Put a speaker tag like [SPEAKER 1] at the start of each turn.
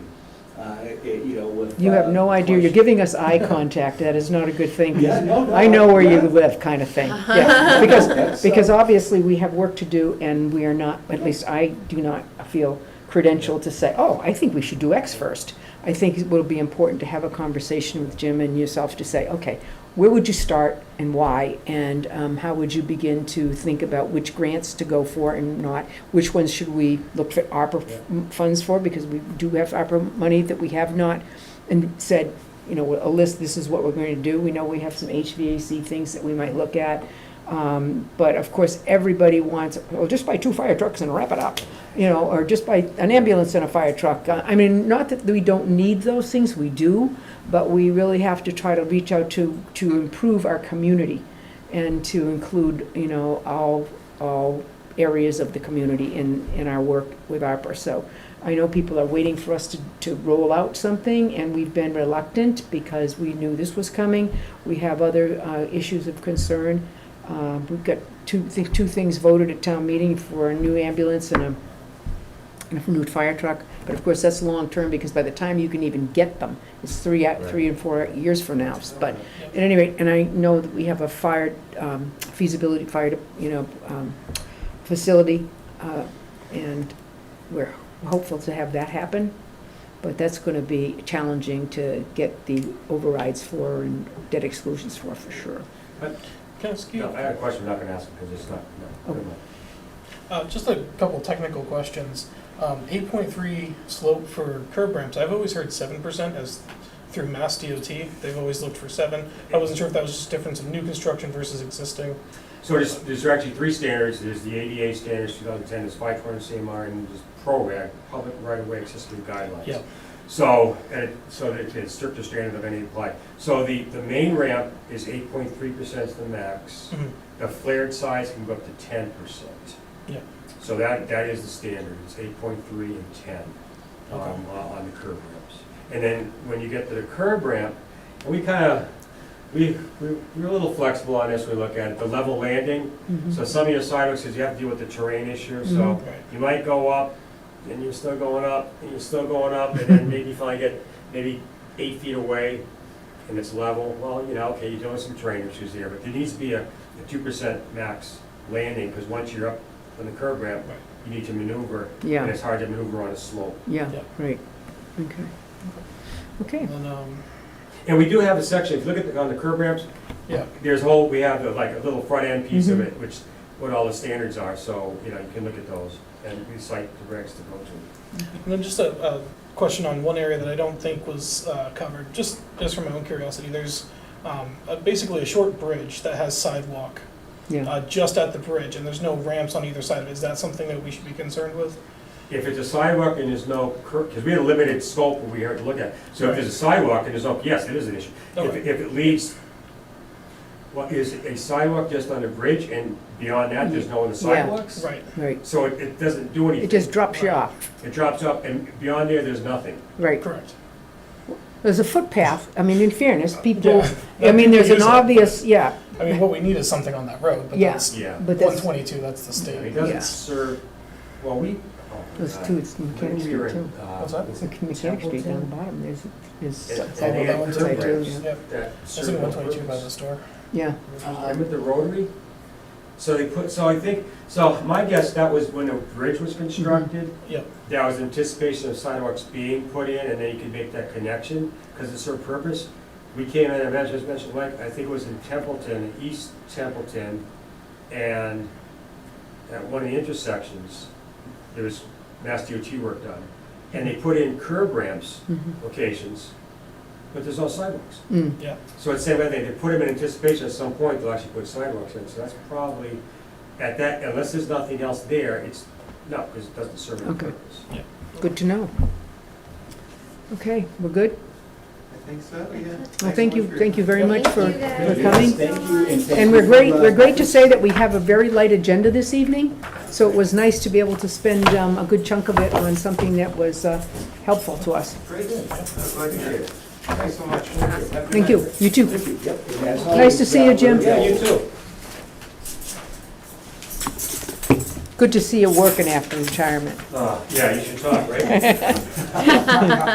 [SPEAKER 1] uh, it- you know, with.
[SPEAKER 2] You have
[SPEAKER 1] uh,
[SPEAKER 2] no idea, you're
[SPEAKER 1] questions.
[SPEAKER 2] giving us eye contact, that is not a good thing. 'cause
[SPEAKER 1] Yeah, no, no,
[SPEAKER 2] I know where you
[SPEAKER 1] yeah.
[SPEAKER 2] live, kind of thing. Yeah,
[SPEAKER 1] That's,
[SPEAKER 2] Because,
[SPEAKER 1] uh,
[SPEAKER 2] because obviously, we have work to do, and we are not, at least I do not feel credentialed to say, oh, I think we should do X first. I think it will be important to have a conversation with Jim and yourself to say, okay, where would you start and why? And um, how would you begin to think about which grants to go for and not? Which ones should we look for ARPA f- m- funds for, because we do have ARPA money that we have not? And said, you know, a list, this is what we're going to do. We know we have some HVAC things that we might look at. Um, But of course, everybody wants, well, just buy two fire trucks and wrap it up, you know, or just buy an ambulance and a fire truck. Uh, I mean, not that we don't need those things, we do, but we really have to try to reach out to, to improve our community and to include, you know, all, all areas of the community in, in our work with ARPA. So I know people are waiting for us to, to roll out something, and we've been reluctant because we knew this was coming. We have other uh, issues of concern. Uh, We've got two, thi- two things voted at town meeting for a new ambulance and a, and a new fire truck. But of course, that's long-term, because by the time you can even get them, it's three, out- three and four years from now. But at any rate, and I know that we have a fire um, feasibility, fire, you know, um, facility, uh, and we're hopeful to have that happen, but that's going to be challenging to get the overrides for and debt exclusions for, for sure.
[SPEAKER 3] Can I ask you,
[SPEAKER 4] No, I had a question, I'm not gonna ask it, because it's not, no. never mind.
[SPEAKER 3] uh, just a couple technical questions. Um, eight point three slope for curb ramps, I've always heard seven percent as through Mass DOT, they've always looked for seven. I wasn't sure if that was just a difference of new construction versus existing.
[SPEAKER 4] So there's, there's actually three standards, there's the ADA standards, 2010, there's 520 CMR, and there's PROAC, Public Right-of-Way Accessibility Guidelines.
[SPEAKER 3] Yeah.
[SPEAKER 4] So, and, it- so that it's stricter standard of any applied. So the, the main ramp is 8.3% is the max,
[SPEAKER 3] Mhm.
[SPEAKER 4] the flared sides can go up to 10%.
[SPEAKER 3] Yeah.
[SPEAKER 4] So that, that is the standard, it's 8.3 and 10 um,
[SPEAKER 3] Okay.
[SPEAKER 4] on on the curb ramps. And then when you get to the curb ramp, and we kind of, we, we- we're a little flexible on this, we look at it, the level landing,
[SPEAKER 3] Mm-hmm.
[SPEAKER 4] so some of your sidewalks, because you have to deal with the terrain issue, so
[SPEAKER 3] Right.
[SPEAKER 4] you might go up, and you're still going up, and you're still going up, and then maybe you finally get maybe eight feet away, and it's level, well, you know, okay, you're dealing with some terrain issues there, but there needs to be a two percent max landing, because once you're up on the curb ramp,
[SPEAKER 3] Right.
[SPEAKER 4] you need to maneuver, and
[SPEAKER 2] Yeah,
[SPEAKER 4] it's hard to maneuver on a slope.
[SPEAKER 2] yeah,
[SPEAKER 3] Yeah.
[SPEAKER 2] right, okay. Okay,
[SPEAKER 3] And then, um,
[SPEAKER 4] And we do have a section, if you look at, the- on the curb ramps,
[SPEAKER 3] yeah, Mm-hmm.
[SPEAKER 4] there's whole, we have the, like a little front end piece of it, which, what all the standards are, so, you know, you can look at those, and we cite the regs to go to.
[SPEAKER 3] and then just a, a question on one area that I don't think was, uh, covered, just, just from my own curiosity, there's, um, uh, basically a short bridge that has sidewalk,
[SPEAKER 2] yeah.
[SPEAKER 3] uh, just at the bridge, and there's no ramps on either side of it, is that something that we should be concerned with?
[SPEAKER 4] If it's a sidewalk and there's no curb, because we had a limited scope where we had to look at, so if there's a sidewalk and there's no, yes, it is an issue. If,
[SPEAKER 3] Okay.
[SPEAKER 4] if it leads, what, is a sidewalk just on a bridge, and beyond that, there's no other sidewalks?
[SPEAKER 3] Right,
[SPEAKER 2] Right,
[SPEAKER 4] So it, it doesn't do anything.
[SPEAKER 2] it just drops you off,
[SPEAKER 4] It drops up, and beyond there, there's nothing.
[SPEAKER 2] right.
[SPEAKER 3] correct.
[SPEAKER 2] There's a footpath, I mean, in fairness, people,
[SPEAKER 3] Yeah.
[SPEAKER 2] I mean, there's an
[SPEAKER 3] Use it.
[SPEAKER 2] obvious, yeah,
[SPEAKER 3] I mean, what we need is something on that road, but
[SPEAKER 2] Yeah.
[SPEAKER 3] that's
[SPEAKER 4] Yeah.
[SPEAKER 2] but that's,
[SPEAKER 3] 122, that's the
[SPEAKER 4] And It
[SPEAKER 3] state.
[SPEAKER 2] Yeah.
[SPEAKER 4] doesn't serve, well, we. oh,
[SPEAKER 2] those
[SPEAKER 4] God.
[SPEAKER 2] two, it's Mechanic
[SPEAKER 4] We were
[SPEAKER 2] Street
[SPEAKER 4] in,
[SPEAKER 2] too.
[SPEAKER 4] uh,
[SPEAKER 3] What's that?
[SPEAKER 2] It's Mechanic Street down the bottom, there's, there's.
[SPEAKER 4] And-
[SPEAKER 3] all
[SPEAKER 4] and they
[SPEAKER 3] about
[SPEAKER 4] had
[SPEAKER 3] one
[SPEAKER 4] curb
[SPEAKER 2] side too,
[SPEAKER 4] ramps
[SPEAKER 2] yeah.
[SPEAKER 3] Yep,
[SPEAKER 4] that
[SPEAKER 3] that's
[SPEAKER 4] serve
[SPEAKER 3] in
[SPEAKER 4] no
[SPEAKER 3] 122 by
[SPEAKER 4] purpose.
[SPEAKER 3] the store.
[SPEAKER 2] Yeah,
[SPEAKER 4] I'm at the Rotary. So they put, so I think, so my guess, that was when the bridge was constructed.
[SPEAKER 3] Yep.
[SPEAKER 4] That was anticipation of sidewalks being put in, and then you could make that connection, because it's served purpose. We came in, and I just mentioned, Mike, I think it was in Templeton, East Templeton, and at one of the intersections, there was Mass DOT work done. And they put in curb ramps
[SPEAKER 2] mhm,
[SPEAKER 4] locations, but there's no sidewalks.
[SPEAKER 2] mm.
[SPEAKER 4] So it's the same thing, they put them in anticipation at some point, they'll actually put sidewalks in, so that's probably, at that, unless there's nothing else there, it's, no, because it doesn't serve any
[SPEAKER 2] Okay.
[SPEAKER 4] purpose.
[SPEAKER 2] Good to know. Okay, we're good?
[SPEAKER 5] I think so, yeah.
[SPEAKER 2] Well,
[SPEAKER 5] Thanks
[SPEAKER 2] thank
[SPEAKER 5] so
[SPEAKER 2] you,
[SPEAKER 5] much for your
[SPEAKER 2] thank you
[SPEAKER 5] time.
[SPEAKER 2] very much
[SPEAKER 6] Thank
[SPEAKER 2] for,
[SPEAKER 6] you
[SPEAKER 2] for
[SPEAKER 6] guys.
[SPEAKER 2] coming.
[SPEAKER 5] Thank you, and thank
[SPEAKER 2] And
[SPEAKER 5] you
[SPEAKER 2] we're
[SPEAKER 5] for,
[SPEAKER 2] great,
[SPEAKER 5] uh,
[SPEAKER 2] we're great to say that we have a very light agenda this evening, so it was nice to be able to spend um, a good chunk of it on something that was uh, helpful to us.
[SPEAKER 5] Great, I'm glad to hear it. Thanks so much.
[SPEAKER 2] Thank you, you too.
[SPEAKER 5] Thank you. Yep.
[SPEAKER 2] Nice to see you, Jim.
[SPEAKER 5] Yeah, you too.
[SPEAKER 2] Good to see you working after retirement.
[SPEAKER 4] Uh, Yeah, you should talk, right?